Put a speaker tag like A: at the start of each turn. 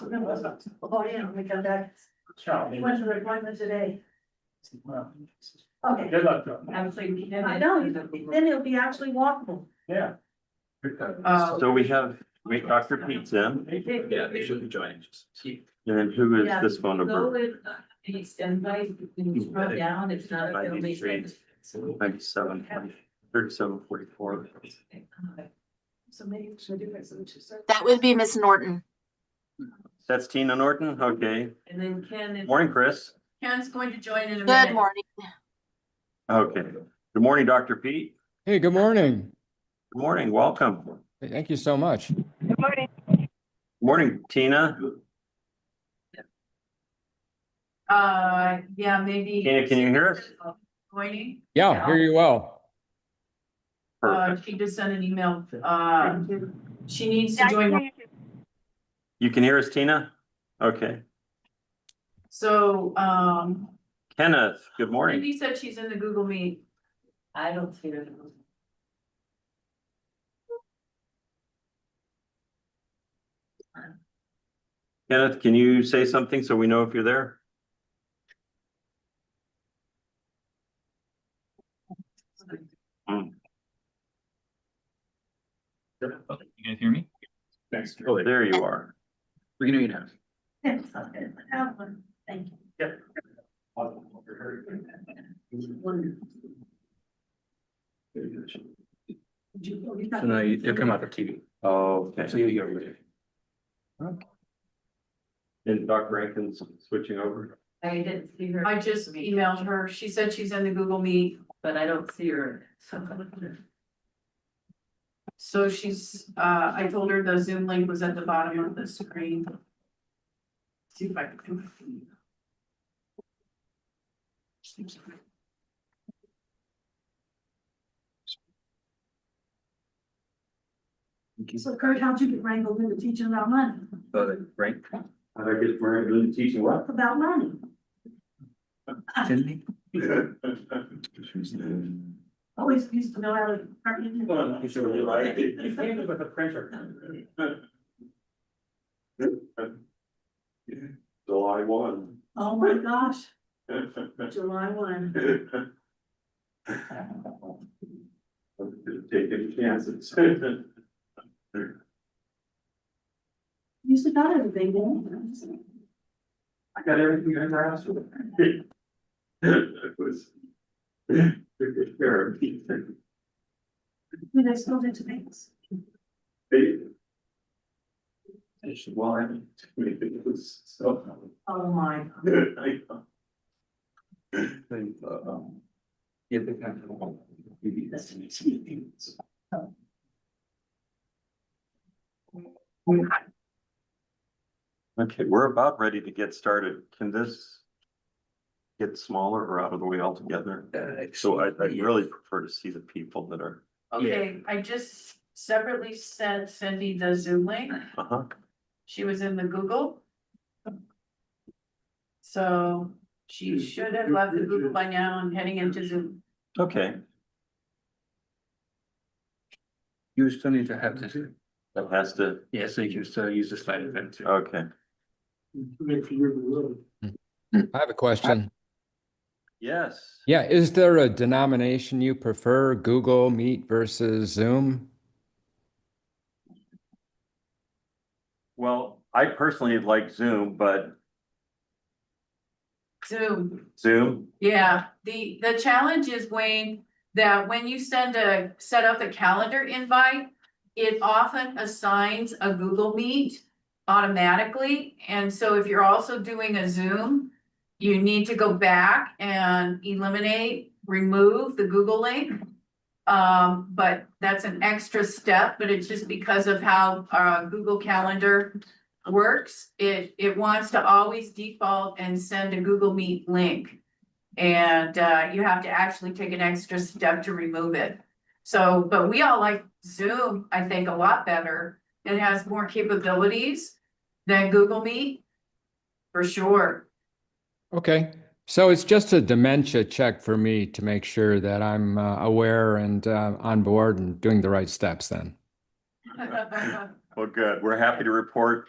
A: Oh, yeah, we come back. He went to the appointment today. Okay.
B: Good luck, John.
C: Absolutely.
A: I know, then it'll be actually walkable.
B: Yeah.
C: Uh,
D: So we have, we, Dr. Pete's in,
E: Yeah, they should be joining.
D: and then who is this phone
C: Go
D: number?
C: with, uh, these invite, you drop down, it's not a film, it's just-
D: Ninety-seven, thirty-seven, forty-four.
A: So maybe we should do it, so it's just.
F: That would be Miss Norton.
D: That's Tina Norton, okay.
C: And then Ken is.
D: Morning, Chris.
C: Ken's going to join in a
F: Good morning.
D: Okay. Good morning, Dr. Pete.
G: Hey, good morning.
D: Good morning, welcome.
G: Thank you so much.
D: Morning, Tina.
C: Uh, yeah, maybe. Uh,
D: Tina, can you hear us?
C: Joining,
G: Yeah, hear you well.
C: uh,
D: Perfect.
C: she just sent an email, uh, she needs to join,
D: You can hear us, Tina? Okay.
C: so, um.
D: Kenneth, good morning.
C: Cindy said she's in the Google Meet. I don't see her.
D: Kenneth, can you say something so we know if you're there?
E: You guys hear me?
B: Thanks.
D: Oh, there you are.
E: We can hear you now.
A: Thank you.
E: So now you, you come out of TV. So
D: Okay.
E: you, you're. over there.
D: And Dr. Rankin's switching over.
C: I didn't see her. I just emailed her. She said she's in the Google Meet, but I don't see her. So she's, uh, I told her the Zoom link was at the bottom of the screen. See if I can.
A: So Kurt, how'd you get wrangled into teaching about money?
E: Uh, right?
D: I guess we're doing teaching what?
A: About money.
E: Cindy?
A: Always used to know how to.
D: You should really like it.
B: You came
A: Oh
B: in with a printer.
D: July one.
A: Oh, my gosh, July one.
D: Taking chances.
A: Used to got everything, didn't
D: I got everything I ever asked for. It was. They,
A: you? Do they still do tomatoes?
D: I should, well, I mean, it was so.
A: Oh, my.
D: I know.
E: Yeah, they kind of. Maybe that's an easy
D: Okay, we're about ready to get started. Can this get smaller or out of the way altogether?
E: thing.
D: So I, I really prefer to see the people that are,
C: Okay, I just separately sent Cindy the Zoom link.
D: uh-huh,
C: She was in the Google. So she should have left the Google by now and heading into Zoom.
D: okay.
E: You still need to have this.
D: That has to,
E: Yeah, so you can still use the slide event too.
D: okay,
G: I have a question.
D: yes.
G: Yeah, is there a denomination you prefer, Google Meet versus Zoom?
D: Well, I personally like Zoom, but
C: Zoom.
D: Zoom,
C: Yeah, the, the challenge is Wayne, that when you send a, set up a calendar invite, it often assigns a Google Meet automatically. And so if you're also doing a Zoom, you need to go back and eliminate, remove the Google link. Um, but that's an extra step, but it's just because of how, uh, Google Calendar works. It, it wants to always default and send a Google Meet link. And uh, you have to actually take an extra step to remove it. So, but we all like Zoom, I think, a lot better. It has more capabilities than Google Meet. For sure.
G: Okay, so it's just a dementia check for me to make sure that I'm uh, aware and uh, on board and doing the right steps then.
D: well, good. We're happy to report